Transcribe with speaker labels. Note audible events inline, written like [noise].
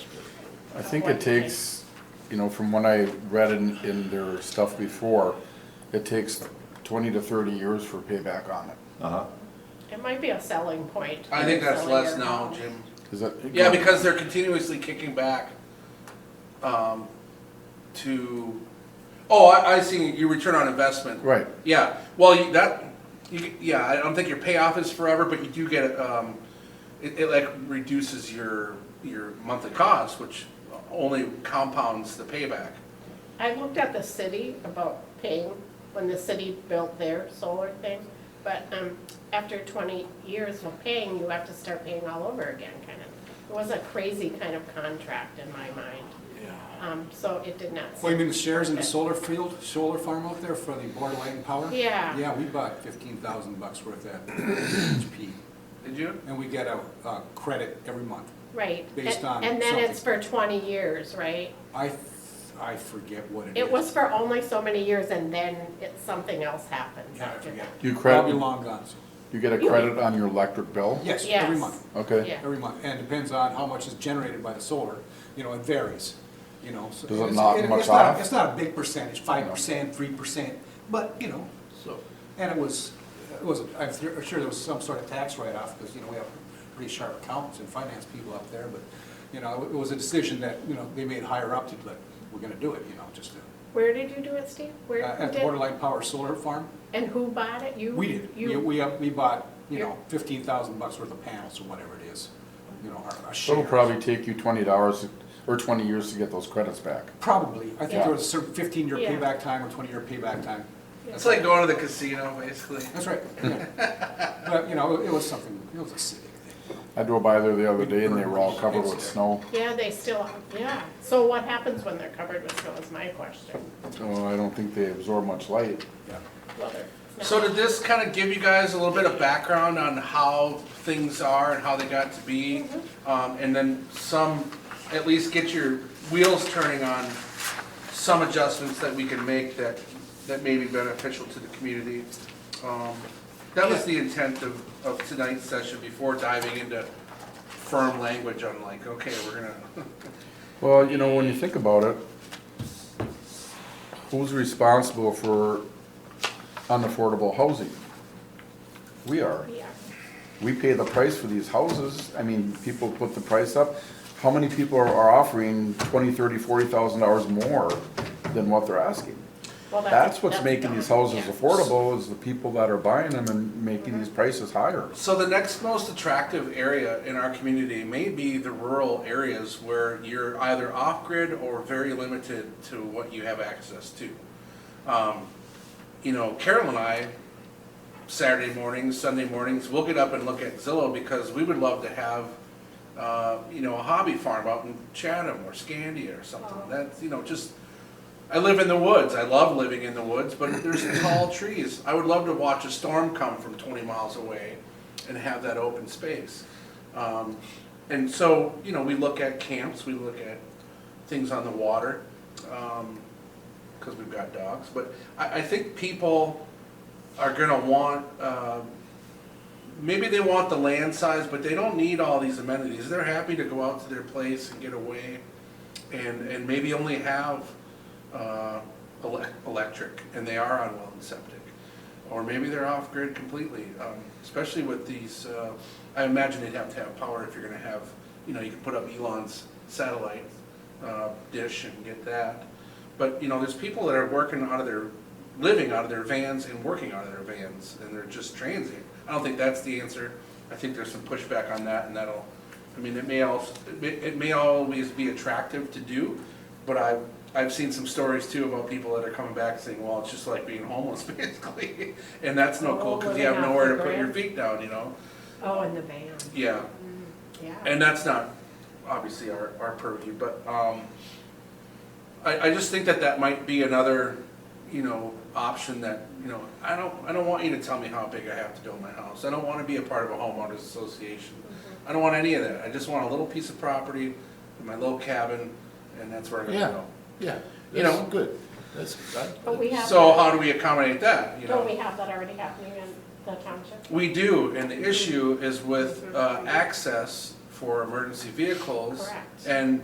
Speaker 1: I think it takes, you know, from what I read in, in their stuff before, it takes twenty to thirty years for payback on it.
Speaker 2: Uh-huh.
Speaker 3: It might be a selling point.
Speaker 4: I think that's
Speaker 3: Selling
Speaker 4: less
Speaker 3: your
Speaker 4: now,
Speaker 3: home.
Speaker 4: Jim.
Speaker 1: Is that?
Speaker 4: Yeah, because they're continuously kicking back, um, to, oh, I, I see your return on investment.
Speaker 1: Right,
Speaker 4: Yeah, well, you, that, you, yeah, I don't think your payoff is forever, but you do get, um, it, it like reduces your, your monthly cost, which only compounds the payback.
Speaker 3: I looked at the city about paying, when the city built their solar thing, but um, after 20 years of paying, you have to start paying all over again, kind of. It was a crazy kind of contract in my mind. Um, So it did not.
Speaker 5: Well, you mean the shares in the solar field, solar farm out there for the Board of Light and Power?
Speaker 3: Yeah.
Speaker 5: Yeah, we bought fifteen thousand bucks worth at HP,
Speaker 4: Did you?
Speaker 5: and we get a, a credit every month.
Speaker 3: Right.
Speaker 5: Based
Speaker 3: And-
Speaker 5: on
Speaker 3: And then it's for
Speaker 5: something.
Speaker 3: 20 years, right?
Speaker 5: I, th- I forget what it is.
Speaker 3: It was for only so many years and then it, something else happens
Speaker 5: Yeah, I
Speaker 3: after
Speaker 5: forget.
Speaker 3: that.
Speaker 1: you
Speaker 5: Probably
Speaker 1: credit,
Speaker 5: long gone, so,
Speaker 1: you get a credit on your electric bill?
Speaker 5: yes, every
Speaker 3: Yes.
Speaker 5: month,
Speaker 1: Okay,
Speaker 3: Yeah.
Speaker 5: every month, and depends on how much is generated by the solar, you know, it varies, you know. so
Speaker 1: Does it
Speaker 5: it's-
Speaker 1: knock
Speaker 5: it-
Speaker 1: much
Speaker 5: it's not-
Speaker 1: off?
Speaker 5: It's not a big percentage, five percent, three percent, but, you know,
Speaker 4: So.
Speaker 5: And it was, it was, I'm sure I'm sure there was some sort of tax write-off, because, you know, we have pretty sharp accountants and finance people up there, but, you know, it was a decision that, you know, they made higher up to, like, we're gonna do it, you know, just to,
Speaker 3: Where did you do it, Steve? Where
Speaker 5: uh,
Speaker 3: who
Speaker 5: at the
Speaker 3: did-
Speaker 5: Borderline Power Solar Farm,
Speaker 3: And who bought it? You?
Speaker 5: we did. We,
Speaker 3: You?
Speaker 5: we, uh, we bought, you know,
Speaker 3: You-
Speaker 5: fifteen thousand bucks worth of panels or whatever it is, you know, our, our
Speaker 1: so it'll
Speaker 5: shares.
Speaker 1: probably take you twenty dollars or twenty years to get those credits back.
Speaker 5: Probably, I think
Speaker 1: Yeah.
Speaker 5: there was a certain fifteen-year
Speaker 3: Yeah.
Speaker 5: payback time or twenty-year payback time.
Speaker 4: It's like going to the casino, basically.
Speaker 1: [laughs]
Speaker 5: That's right, yeah. But, you know, it was something, it was a civic thing.
Speaker 1: I drove by there the other day and they were all covered with snow,
Speaker 3: Yeah, they still, yeah. So what happens when they're covered with snow is my question.
Speaker 1: so I don't think they absorb much light.
Speaker 5: Yeah.
Speaker 3: Whether it's
Speaker 4: So
Speaker 3: not-
Speaker 4: did this kind of give you guys a little bit of background on how things are and how they got to be? Um, and then some, at least get your wheels turning on some adjustments that we can make that, that may be beneficial to the community. Um, That was the intent of, of tonight's session before diving into firm language on like, okay, we're gonna,
Speaker 1: Well, you know, when you think about it, who's responsible for unaffordable housing? We are.
Speaker 3: Yeah.
Speaker 1: We pay the price for these houses. I mean, people put the price up. How many people are- are offering twenty, thirty, forty thousand dollars more than what they're asking?
Speaker 3: Well,
Speaker 1: That's what's making
Speaker 3: gone.
Speaker 1: these houses
Speaker 3: Yeah.
Speaker 1: affordable, is the people that are buying them and making these prices higher.
Speaker 4: So the next most attractive area in our community may be the rural areas where you're either off-grid or very limited to what you have access to. Um, You know, Carol and I, Saturday mornings, Sunday mornings, we'll get up and look at Zillow because we would love to have, uh, you know, a hobby farm out in Chatham or Scandia or something. That's, you know, just, I live in the woods. I love living in the woods, but there's tall trees. I would love to watch a storm come from 20 miles away and have that open space. Um, and so, you know, we look at camps, we look at things on the water, because we've got dogs. But I, I think people are going to want, uh, maybe they want the land size, but they don't need all these amenities. They're happy to go out to their place and get away and, and maybe only have uh, ele- electric, and they are on well and septic. Or maybe they're off-grid completely, um, especially with these, uh, I imagine they'd have to have power if you're gonna have, you know, you can put up Elon's satellite uh, dish and get that. But, you know, there's people that are working out of their, living out of their vans and working out of their vans, and they're just transient. I don't think that's the answer. I think there's some pushback on that, and that'll, I mean, it may also, it may- it may always be attractive to do, but I, I've seen some stories too about people that are coming back saying, well, it's just like being homeless [laughs] basically. And that's no cool, cause you have nowhere to put your feet down, you know?
Speaker 3: Oh, in the van,
Speaker 4: Yeah,
Speaker 3: yeah.
Speaker 4: and that's not obviously our, our purview, but, um, I, I just think that that might be another, you know, option that, you know, I don't, I don't want you to tell me how big I have to build my house. I don't wanna be a part of a homeowners association.
Speaker 3: Mm-hmm.
Speaker 4: I don't want any of that. I just want a little piece of property, and my little cabin, and that's where I'm gonna
Speaker 6: Yeah.
Speaker 4: go.
Speaker 6: Yeah,
Speaker 4: You
Speaker 6: you
Speaker 4: know.
Speaker 6: know, good. That's,
Speaker 3: But we
Speaker 6: I,
Speaker 3: have,
Speaker 4: So
Speaker 3: that-
Speaker 4: how do we accommodate that, you
Speaker 3: don't we
Speaker 4: know?
Speaker 3: have that already happening in the township?
Speaker 4: We do, and
Speaker 3: Mm-hmm.
Speaker 4: the issue is with uh, access for emergency vehicles.
Speaker 3: Correct.
Speaker 4: And